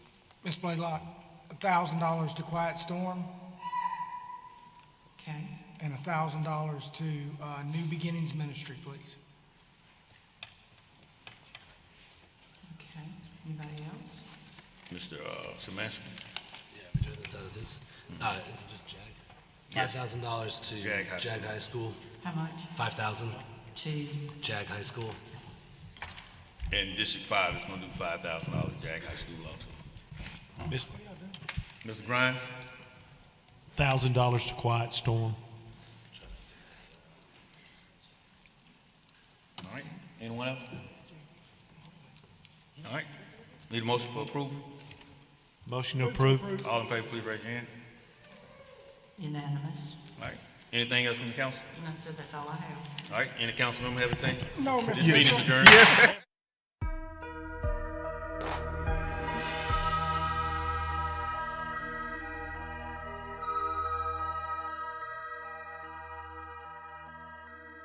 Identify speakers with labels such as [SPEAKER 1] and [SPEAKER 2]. [SPEAKER 1] Ms. Blaylock, a thousand dollars to Quiet Storm
[SPEAKER 2] Okay,
[SPEAKER 1] and a thousand dollars to, uh, New Beginnings Ministry, please.
[SPEAKER 2] okay. Anybody else?
[SPEAKER 3] Mr. uh, Samaski,
[SPEAKER 4] Yeah, between this out of this. Uh, is it just JAG? Five thousand dollars to
[SPEAKER 3] Hmm. JAG High
[SPEAKER 4] JAG
[SPEAKER 3] School.
[SPEAKER 4] High School.
[SPEAKER 2] How much?
[SPEAKER 4] Five thousand,
[SPEAKER 2] To,
[SPEAKER 4] JAG High School.
[SPEAKER 3] and District Five is gonna do five thousand dollars to Jag High School also. Mr. Grimes,
[SPEAKER 5] thousand dollars to Quiet Storm.
[SPEAKER 3] all right, anyone else? All right, need a motion for approval?
[SPEAKER 5] Motion to approve.
[SPEAKER 3] All in favor, please raise your hand.
[SPEAKER 2] unanimous?
[SPEAKER 3] All right, anything else from the council?
[SPEAKER 2] No, sir, that's all I have.
[SPEAKER 3] All right, any council member have anything?
[SPEAKER 1] No,
[SPEAKER 3] This meeting is adjourned.